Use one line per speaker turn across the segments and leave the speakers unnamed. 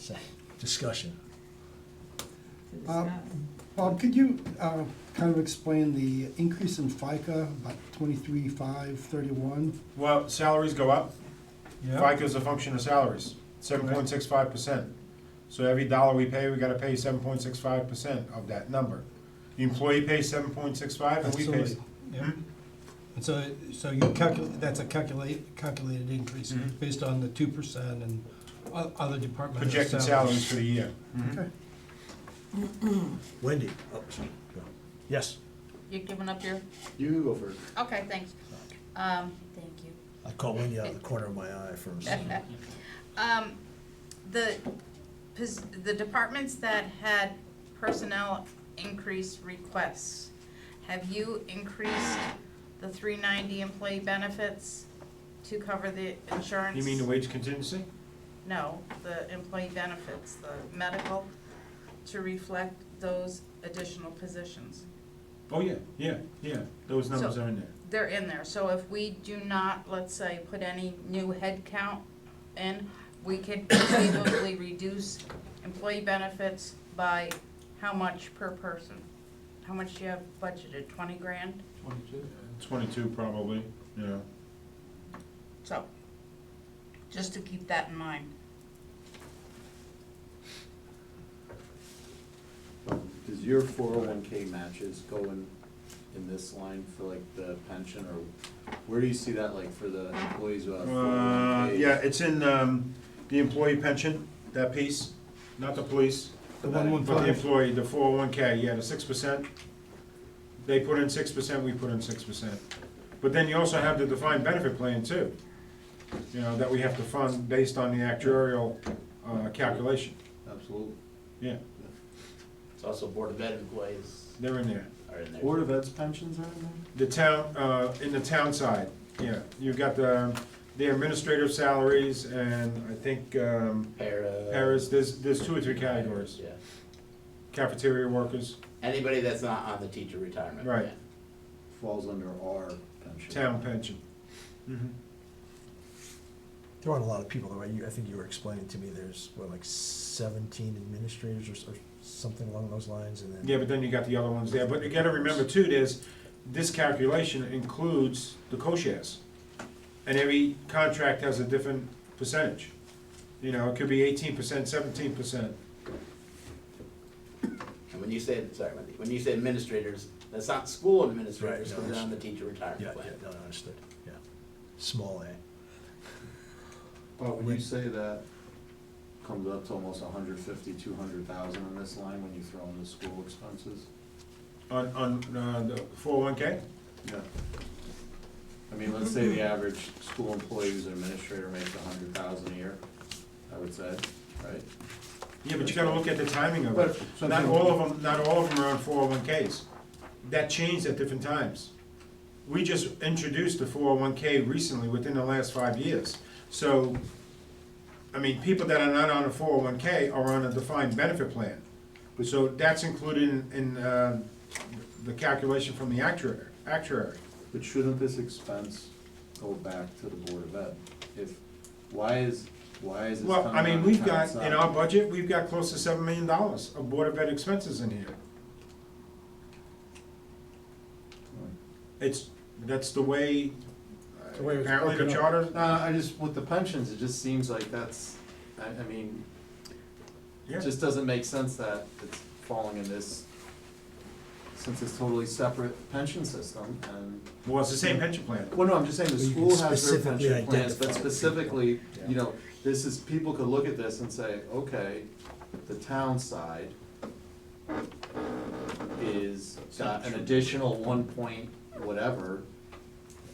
So, Discussion.
to this
Um,
guy.
Bob, could you uh, kind of explain the increase in FICA, about twenty-three, five, thirty-one?
Well, salaries go up.
Yeah,
FICA is a function of salaries, seven point six five percent. So every dollar we pay, we gotta pay seven point six five percent of that number. The employee pays seven point six five and we pay.
Absolutely, yeah. And so, so you calculate, that's a calculate, calculated increase
Mhm.
based on the two percent and o- other departmental salaries.
projected salaries for the year. Mhm.
Okay.
Wendy. Oh, sorry. Go. Yes,
You're giving up your,
You go first.
okay, thanks. Um, thank you.
I caught Wendy out of the corner of my eye for a second.
Um, the, pos- the departments that had personnel increase requests, have you increased the three ninety employee benefits to cover the insurance?
You mean the wage contingency?
No, the employee benefits, the medical, to reflect those additional positions.
Oh, yeah, yeah, yeah, those numbers
So-
are in there.
They're in there, so if we do not, let's say, put any new head count in, we could conceivably reduce employee benefits by how much per person? How much do you have budgeted, twenty grand?
Twenty-two.
Twenty-two probably, yeah.
So, just to keep that in mind.
Does your four oh one K matches go in, in this line for like the pension or where do you see that like for the employees who have four oh one
Uh,
Ks?
yeah, it's in, um, the employee pension, that piece, not the police.
The one one
But the
five,
employee, the four oh one K, yeah, the six percent, they put in six percent, we put in six percent. But then you also have the defined benefit plan too, you know, that we have to fund based on the actuarial, uh, calculation,
Absolutely.
yeah,
It's also Board of Ed employees
they're in there.
are in there.
Board of Ed's pensions are in
The
there?
town, uh, in the town side, yeah, you've got the, the administrative salaries and I think, um,
Para.
Paras, there's, there's two or three categories,
Yeah.
cafeteria workers,
Anybody that's not on the teacher retirement
Right.
plan.
Falls under our pension.
town pension. Mhm.
There aren't a lot of people, though, right? You- I think you were explaining to me there's, what, like seventeen administrators or s- or something along those lines, and then.
Yeah, but then you got the other ones there, but you gotta remember too, there's, this calculation includes the co-shares. And every contract has a different percentage, you know, it could be eighteen percent, seventeen percent.
And when you say, sorry, Wendy, when you say administrators, that's not school administrators,
Right, no,
because they're on the
it's-
teacher
Yeah,
retirement
yeah,
plan.
no, I understood, yeah. Small A.
But when you say that comes up to almost a hundred fifty, two hundred thousand in this line when you throw in the school expenses?
On, on, uh, the four oh one K,
Yeah. I mean, let's say the average school employee who's an administrator makes a hundred thousand a year, I would say, right?
yeah, but you gotta look at the timing of it.
But-
Not all of them, not all of them are on four oh one Ks, that changed at different times. We just introduced the four oh one K recently, within the last five years, so, I mean, people that are not on a four oh one K are on a defined benefit plan. So that's included in, in, uh, the calculation from the actuary, actuary.
But shouldn't this expense go back to the Board of Ed? If, why is, why is this
Well,
coming
I
on
mean,
the
we've
town
got, in
side?
our budget, we've got close to seven million dollars of Board of Ed expenses in here. It's, that's the way,
The way it was
apparently the
broken up.
charter,
No, I just, with the pensions, it just seems like that's, I, I mean,
yeah.
it just doesn't make sense that it's falling in this, since it's totally separate pension system and
Well, it's the same pension plan.
Well, no, I'm just saying the
But you can
school has their
specifically
pension plans,
identify the
but
people.
specifically, you
Yeah.
know, this is, people could look at this and say, okay, the town side is got an additional one point whatever.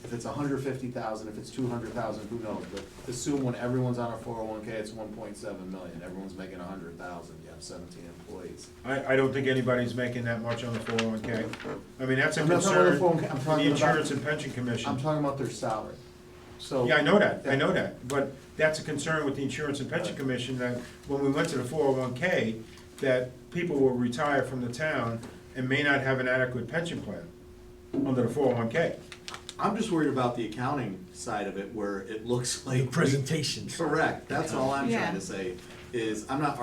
If it's hundred fifty thousand, if it's two hundred thousand, who knows, but assume when everyone's on a four oh one K, it's one point seven million, everyone's making a hundred thousand, you have seventeen employees.
I, I don't think anybody's making that much on the four oh one K. I mean, that's a
I'm not talking about the
concern, for
401k, I'm
the
talking about-
insurance and pension commission.
I'm talking about their salary, so.
Yeah, I know that, I know that, but that's a concern with the Insurance and Pension
Right.
Commission, that when we went to the four oh one K, that people will retire from the town and may not have an adequate pension plan under the four oh one K.
I'm just worried about the accounting side of it where it looks
The
like.
presentations.
Correct, that's all I'm
Yeah.
trying to say, is I'm not